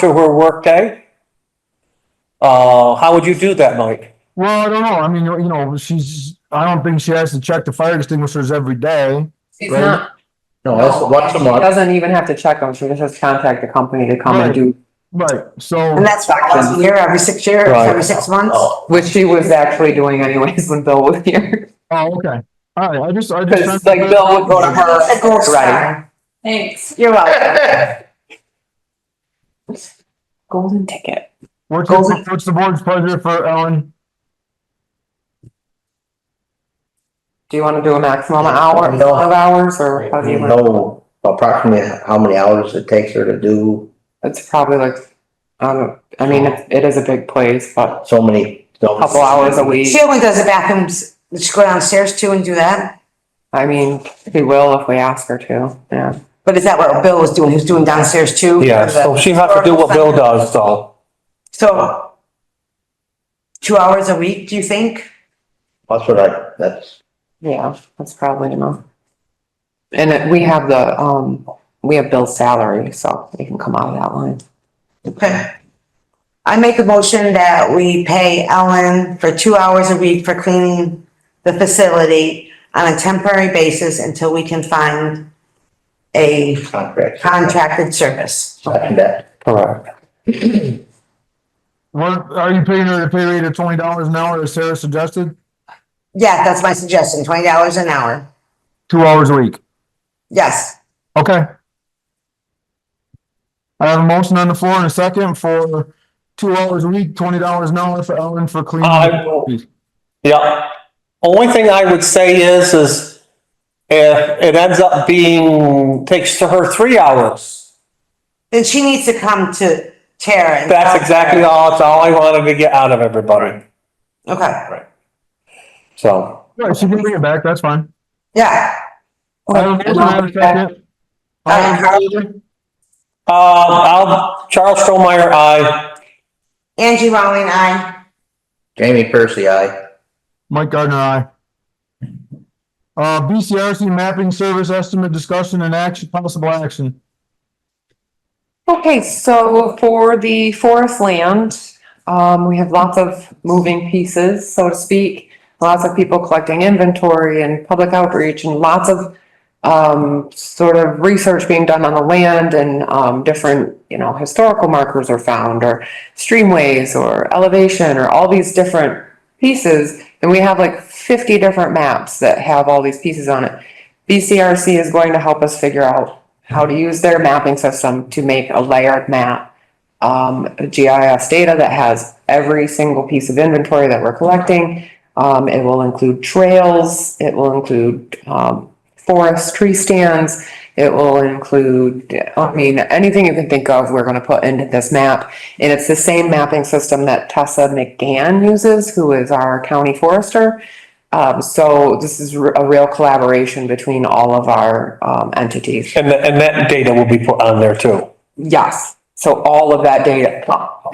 to her workday? Uh, how would you do that, Mike? Well, I don't know. I mean, you know, she's, I don't think she has to check the fire extinguishers every day. She's Right. not. No, that's once a She month. Doesn't even have to check them. She just has to contact the company to come and do, Right, so, And that's not once a year, every six years, Right. Oh. every six months. which she was actually doing anyways when Bill was here. oh, okay. All right, I just, I Cause just. like Bill would go to A gold her. Right. star. Thanks. You're welcome. Golden ticket. What's, the- what's the board's pleasure for Ellen? Do you wanna do a maximum hour, No. of hours or how do You you want? know approximately how many hours it takes her to do It's probably like, I don't, I mean, it, it is a big place, but so many. a couple hours a week. She only does the bathrooms, does she go downstairs too and do that? I mean, we will if we ask her to, yeah. But is that what Bill was doing? He was doing downstairs too? Yeah, so she has to do what Bill does, though. So two hours a week, do you think? That's what I, that's, Yeah, that's probably enough. And it- we have the, um, we have Bill's salary, so we can come out of that line. Okay. I make a motion that we pay Ellen for two hours a week for cleaning the facility on a temporary basis until we can find a contract. contracted service. Second that. Correct. What, are you paying her the pay rate of twenty dollars an hour as Sarah suggested? Yeah, that's my suggestion, twenty dollars an hour. Two hours a week. Yes. Okay. I have a motion on the floor in a second for two hours a week, twenty dollars an hour for Ellen for I cleaning. will- Yeah. Only thing I would say is, is if it ends up being, takes to her three hours. Then she needs to come to Tara. and- That's exactly all, that's all I wanted to get out of everybody, Okay, so. Yeah, she can bring it back, that's fine. yeah. I have a motion, I have a second. All in favor? Uh, I'll, Charles Strohmeyer, I. Angie Rowling, I. Jamie Percy, I. Mike Gardner, aye. Uh, BCRC mapping service estimate discussion and action, possible action. Okay, so for the forest land, um, we have lots of moving pieces, so to speak. Lots of people collecting inventory and public outreach and lots of, um, sort of research being done on the land and, um, different, you know, historical markers are found or streamways or elevation or all these different pieces. And we have like fifty different maps that have all these pieces on it. BCRC is going to help us figure out how to use their mapping system to make a layered map. Um, GIS data that has every single piece of inventory that we're collecting. Um, it will include trails, it will include, um, forest tree stands. It will include, I mean, anything you can think of, we're gonna put into this map. And it's the same mapping system that Tessa McGann uses, who is our county forester. Um, so this is r- a real collaboration between all of our, um, entities. And, tha- and that data will be put on there too. Yes, so all of that data,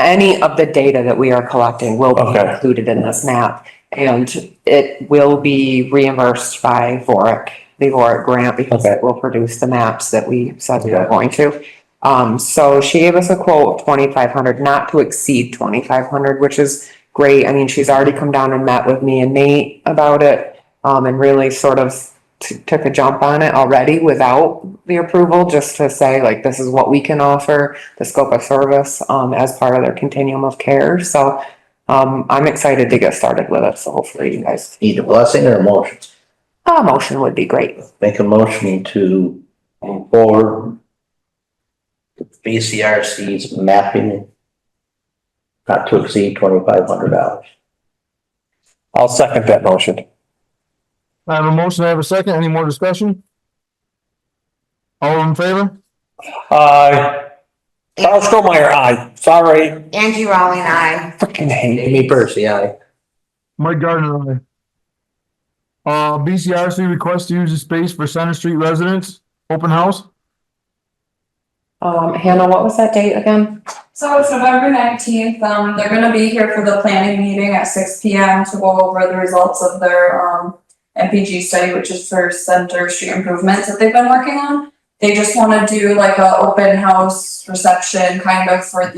any of the data that we are collecting will be Okay. included in this map. And it will be reimbursed by VORIC, the VORIC grant, because Okay. it will produce the maps that we said we were going to. Um, so she gave us a quote of twenty-five hundred, not to exceed twenty-five hundred, which is great. I mean, she's already come down and met with me and Nate about it. Um, and really sort of t- took a jump on it already without the approval, just to say like, this is what we can offer, the scope of service, um, as part of their continuum of care. So, um, I'm excited to get started with it. So hopefully you guys, Need a blessing or a motion? a motion would be great. Make a motion to move forward. BCRC's mapping. Not to exceed twenty-five hundred dollars. I'll second that motion. I have a motion, I have a second, any more discussion? All in favor? I. Uh, Charles Strohmeyer, I. Sorry, Angie Rowling, I. freaking hate. Jamie Percy, I. Mike Gardner, aye. Uh, BCRC request to use the space for Center Street residents, open house? Um, Hannah, what was that date again? So it's November nineteenth, um, they're gonna be here for the planning meeting at six P M to go over the results of their, um, MPG study, which is for center street improvements that they've been working on. They just wanna do like a open house reception kind of for